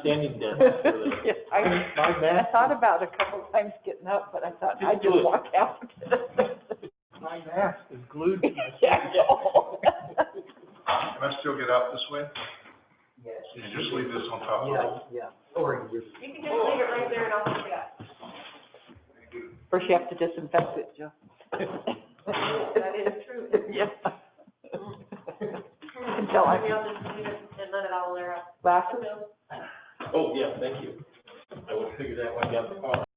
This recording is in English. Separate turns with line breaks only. standing desk for the,
Yeah, I,
my
I
math,
thought about it a couple times getting up, but I thought
Just
I'd
do
just
it.
walk out.
my mask is glued to my
Yeah,
screen.
no.
Can I still get out this way?
Yes,
You just leave this on top of
yeah, yeah, or you
You can just leave it right there and I'll pick it up.
First you have to disinfect it, Joe.
That is true.
Yeah. Until
Maybe
I,
I'll just leave it and let it all air out.
glasses.
Oh, yeah, thank you. I would figure that one out.